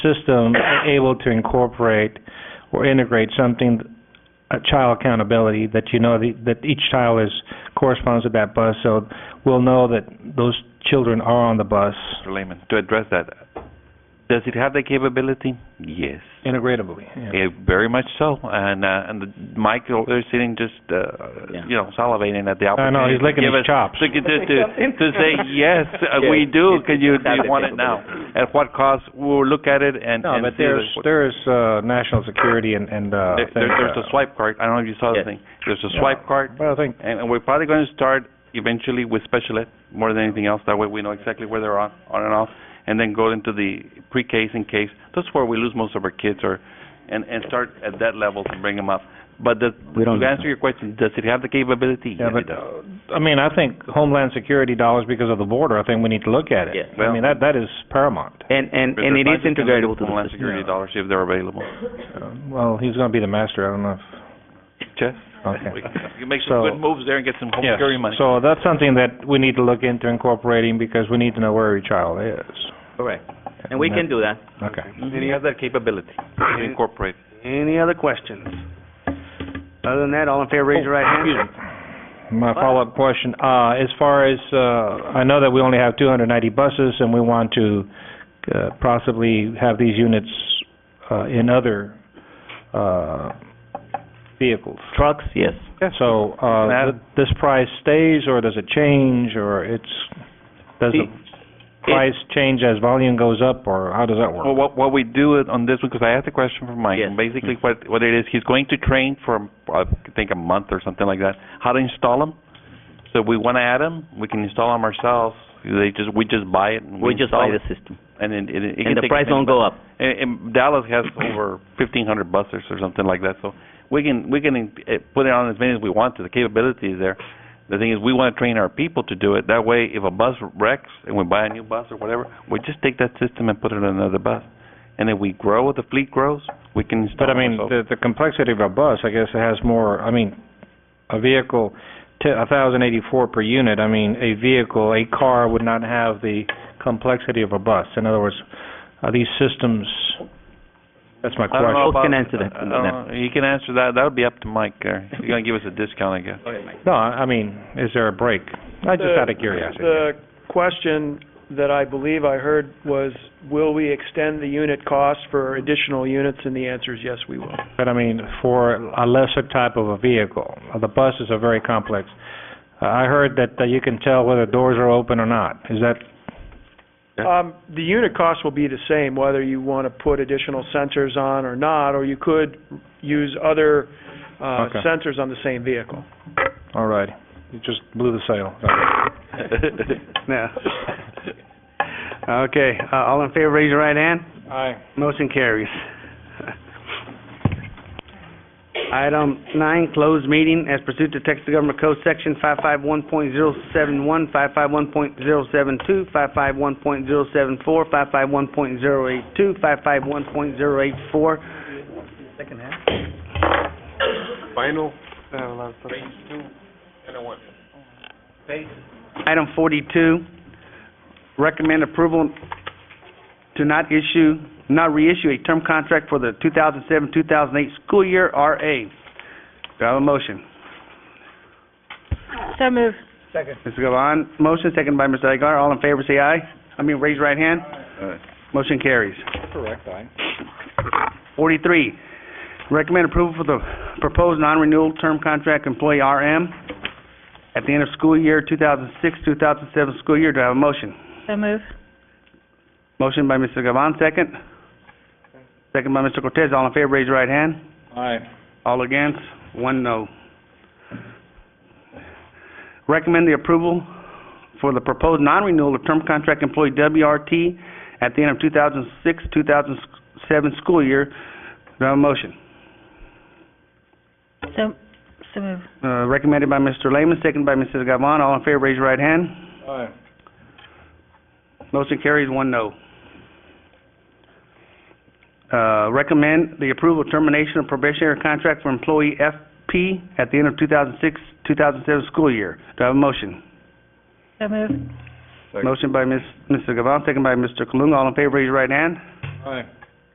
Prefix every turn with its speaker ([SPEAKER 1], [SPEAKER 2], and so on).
[SPEAKER 1] system able to incorporate or integrate something, a child accountability, that you know the- that each child is, corresponds to that bus, so we'll know that those children are on the bus.
[SPEAKER 2] Mr. Lehman, to address that, does it have the capability? Yes.
[SPEAKER 1] Integratably, yeah.
[SPEAKER 2] Eh, very much so. And uh, and the, Michael is sitting just, uh,
[SPEAKER 3] Yeah.
[SPEAKER 2] you know, salivating at the
[SPEAKER 1] I
[SPEAKER 2] opportunity.
[SPEAKER 1] know, he's licking
[SPEAKER 2] to give
[SPEAKER 1] his
[SPEAKER 2] us-
[SPEAKER 1] chops.
[SPEAKER 2] To, to, to, to say, yes, uh,
[SPEAKER 3] Yeah,
[SPEAKER 2] we do,
[SPEAKER 3] it-
[SPEAKER 2] because you,
[SPEAKER 3] it's
[SPEAKER 2] you want it now. At what cost? We'll look at it and,
[SPEAKER 1] No,
[SPEAKER 2] and
[SPEAKER 1] but
[SPEAKER 2] see
[SPEAKER 1] there's,
[SPEAKER 2] what-
[SPEAKER 1] there is, uh, national security and, and, uh,
[SPEAKER 2] there, there-
[SPEAKER 1] things,
[SPEAKER 2] there's
[SPEAKER 1] uh,
[SPEAKER 2] a swipe card. I don't know if you saw
[SPEAKER 3] Yes.
[SPEAKER 2] the thing. There's a
[SPEAKER 1] yeah.
[SPEAKER 2] swipe card,
[SPEAKER 1] But I think,
[SPEAKER 2] and, and we're probably going to start eventually with special ed more than anything else. That way we know exactly where they're on, on and off, and then go into the pre-K and case. That's where we lose most of our kids, or and and start at that level to bring them up. But the,
[SPEAKER 3] We don't
[SPEAKER 2] to
[SPEAKER 3] lose
[SPEAKER 2] answer
[SPEAKER 3] them.
[SPEAKER 2] your question, does it have the capability?
[SPEAKER 1] yeah,
[SPEAKER 2] Yes, it
[SPEAKER 1] but,
[SPEAKER 2] does.
[SPEAKER 1] uh, I mean, I think Homeland Security dollars because of the border, I think we need to look at it.
[SPEAKER 3] Yes.
[SPEAKER 1] I mean, that, that is paramount.
[SPEAKER 3] And, and,
[SPEAKER 2] But
[SPEAKER 3] and
[SPEAKER 2] their
[SPEAKER 3] it is
[SPEAKER 2] budget can be
[SPEAKER 3] integratable to the
[SPEAKER 2] Homeland
[SPEAKER 3] system.
[SPEAKER 2] security dollars if they're available.
[SPEAKER 1] Uh, Well, he's gonna be the master, I don't know if.
[SPEAKER 2] Chess.
[SPEAKER 1] Okay.
[SPEAKER 2] We- You make
[SPEAKER 1] So-
[SPEAKER 2] some good moves there and get some home
[SPEAKER 1] Yes.
[SPEAKER 2] security money.
[SPEAKER 1] So that's something that we need to look into incorporating because we need to know where every child is.
[SPEAKER 3] Correct. And we can do that.
[SPEAKER 1] Okay.
[SPEAKER 2] Then Mm-hmm. you have that capability to incorporate.
[SPEAKER 4] Any other questions? Other than that, all in favor, raise your right hand.
[SPEAKER 1] My follow-up question, uh, as far as, uh, I know that we only have two hundred and ninety buses and we want to, uh, possibly have these units, uh, in other, uh, vehicles.
[SPEAKER 3] Trucks, yes.
[SPEAKER 1] So, uh, th- this price stays or does it change or it's, does the
[SPEAKER 3] See,
[SPEAKER 1] price change as volume goes up or how does that work?
[SPEAKER 2] Well, what, what we do it on this one, because I asked a question from Mike,
[SPEAKER 3] Yes.
[SPEAKER 2] and basically what, what it is, he's going to train for, I think, a month or something like that, how to install them. So if we want to add them, we can install them ourselves, they just, we just buy it and we
[SPEAKER 3] We just
[SPEAKER 2] install
[SPEAKER 3] buy
[SPEAKER 2] it.
[SPEAKER 3] the system.
[SPEAKER 2] And then it, it can
[SPEAKER 3] And the
[SPEAKER 2] take
[SPEAKER 3] price
[SPEAKER 2] many
[SPEAKER 3] won't go up.
[SPEAKER 2] and, and Dallas has over fifteen hundred buses or something like that, so we can we can eh, put it on as many as we want to. The capability is there. The thing is, we want to train our people to do it. That way, if a bus wrecks and we buy a new bus or whatever, we just take that system and put it on another bus. And if we grow, the fleet grows, we can install.
[SPEAKER 1] But I mean,
[SPEAKER 2] ourselves.
[SPEAKER 1] the, the complexity of a bus, I guess it has more, I mean, a vehicle, a thousand eighty-four per unit, I mean, a vehicle, a car would not have the complexity of a bus. In other words, are these systems, that's my
[SPEAKER 2] I don't know
[SPEAKER 1] question.
[SPEAKER 2] about-
[SPEAKER 3] can answer that.
[SPEAKER 2] I don't know. He can answer that. That would be up to Mike. There, he's gonna give us a discount, I guess.
[SPEAKER 1] No, I I mean, is there a break? I just
[SPEAKER 5] The-
[SPEAKER 1] out of curiosity.
[SPEAKER 5] Oh, The question that I believe I heard was, will we extend the unit cost for additional units? And the answer is yes, we will.
[SPEAKER 1] But I mean, for a lesser type of a vehicle, uh, the buses are very complex. Uh, I heard that uh, you can tell whether doors are open or not. Is that
[SPEAKER 2] Yeah.
[SPEAKER 5] Um, the unit cost will be the same whether you want to put additional sensors on or not, or you could use other, uh,
[SPEAKER 1] Okay.
[SPEAKER 5] sensors on the same vehicle.
[SPEAKER 1] all right? You just blew the sail.
[SPEAKER 2] Uh,
[SPEAKER 4] No. Okay, uh, all in favor, raise your right hand.
[SPEAKER 1] Aye.
[SPEAKER 4] Motion carries. Item nine, closed meeting as pursuant to Texas Government Code Section 551.071, 551.072, 551.074, 551.082, 551.084. Second half. Item forty-two, recommend approval to not issue, not reissue a term contract for the two thousand seven, two thousand eight school year RA. Do I have a motion?
[SPEAKER 6] So move.
[SPEAKER 4] Mr. Gavon, motion, second by Mr. Aguilar, all in favor, say aye. I mean, raise your right hand. Motion carries.
[SPEAKER 1] Correct, aye.
[SPEAKER 4] Forty-three, recommend approval for the proposed non-renewal term contract employee RM at the end of school year, two thousand six, two thousand seven school year. Do I have a motion?
[SPEAKER 6] So move.
[SPEAKER 4] Motion by Mr. Gavon, second. Second by Mr. Cortez. All in favor, raise your right hand.
[SPEAKER 1] Aye.
[SPEAKER 4] All against, one no. Recommend the approval for the proposed non-renewal of term contract employee WRT at the end of 2006, 2007 school year. Do I have a motion?
[SPEAKER 6] So, so move.
[SPEAKER 4] Uh, Recommended by Mr. Lehman, second by Mrs. Gavon. All in favor, raise your right hand.
[SPEAKER 1] Aye.
[SPEAKER 4] Motion carries, one no. Uh, recommend the approval of termination of probationary contract for employee FP at the end of 2006, 2007 school year. Do I have a motion?
[SPEAKER 6] So move.
[SPEAKER 4] Motion by Ms. Mrs. Gavon, second by Mr. Kalunga. All in favor, raise your right hand.
[SPEAKER 1] Aye.